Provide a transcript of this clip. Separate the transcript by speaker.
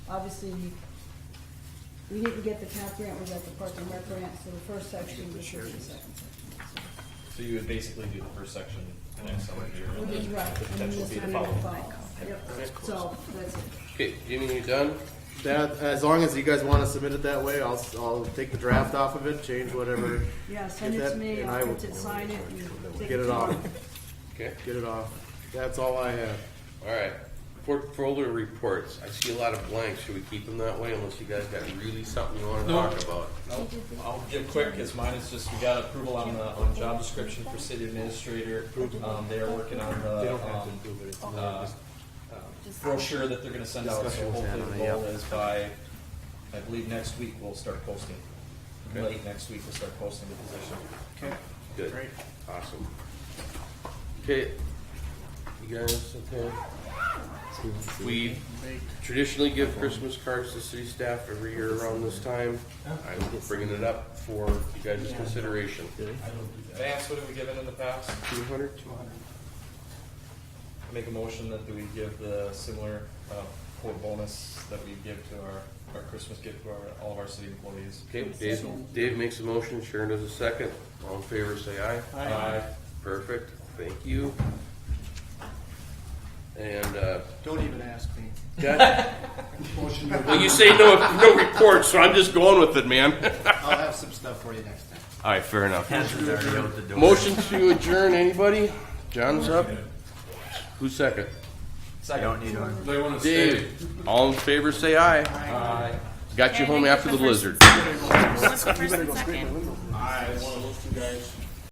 Speaker 1: obviously, we didn't get the TAP grant, we got the Park and Rec grant, so the first section was the second section.
Speaker 2: So you would basically do the first section the next summer year,
Speaker 1: so.
Speaker 2: and
Speaker 1: Which is
Speaker 2: then
Speaker 1: right,
Speaker 2: the
Speaker 1: and then
Speaker 2: potential would
Speaker 1: this
Speaker 2: be the
Speaker 1: one will
Speaker 2: following.
Speaker 1: follow. Yep, so, that's it.
Speaker 3: Okay, Jimmy, you done?
Speaker 4: That, as long as you guys wanna submit it that way, I'll, I'll take the draft off of it, change whatever,
Speaker 1: Yeah, send
Speaker 4: Get
Speaker 1: it to
Speaker 4: that,
Speaker 1: me,
Speaker 4: and
Speaker 1: I'll
Speaker 4: I will-
Speaker 1: print it, sign it, and. take
Speaker 4: get it
Speaker 1: tomorrow.
Speaker 4: off,
Speaker 3: Okay,
Speaker 4: get it off. That's all I have.
Speaker 3: all right. For Folder reports, I see a lot of blanks. Should we keep them that way unless you guys got really something you wanna
Speaker 2: No.
Speaker 3: talk about?
Speaker 2: I'll- I'll give quick, because mine is just, we got approval on the, on job description for city administrator. Um, they're working on the, um, uh, uh, brochure that they're gonna send out, so
Speaker 4: um, Discussion was had
Speaker 2: hopefully
Speaker 4: on
Speaker 2: the
Speaker 4: it, yeah.
Speaker 2: goal is by, I believe next week we'll start posting.
Speaker 3: Okay.
Speaker 2: Late next week we'll start posting the position.
Speaker 4: Okay.
Speaker 3: Good.
Speaker 4: Great.
Speaker 3: Awesome. Okay, you guys, okay? We traditionally give Christmas cards to city staff every year around this time. I'm bringing it up for you guys' consideration.
Speaker 2: Vance, what have we given in the past?
Speaker 3: Two hundred?
Speaker 2: Make a motion that we give the similar, uh, quote bonus that we give to our, our Christmas gift to our, all of our city employees.
Speaker 3: Okay, Dave, Dave makes a motion, Sharon does a second. All in favor, say aye.
Speaker 2: Aye.
Speaker 3: Perfect, thank you. And, uh,
Speaker 5: Don't even ask me.
Speaker 3: that-
Speaker 5: Motion to
Speaker 3: well, you say no, no report, so I'm just going with it, man.
Speaker 5: I'll have some stuff for you next time.
Speaker 3: All right, fair enough. Motion to adjourn, anybody? John's up? Who's second?
Speaker 2: Second.
Speaker 3: Dave. All in favor, say aye.
Speaker 2: Aye.
Speaker 3: Got you
Speaker 6: Okay, I
Speaker 3: home
Speaker 6: think
Speaker 3: after the
Speaker 6: the first-
Speaker 3: blizzard.
Speaker 6: Who was the first and second?
Speaker 7: I, one of those two guys.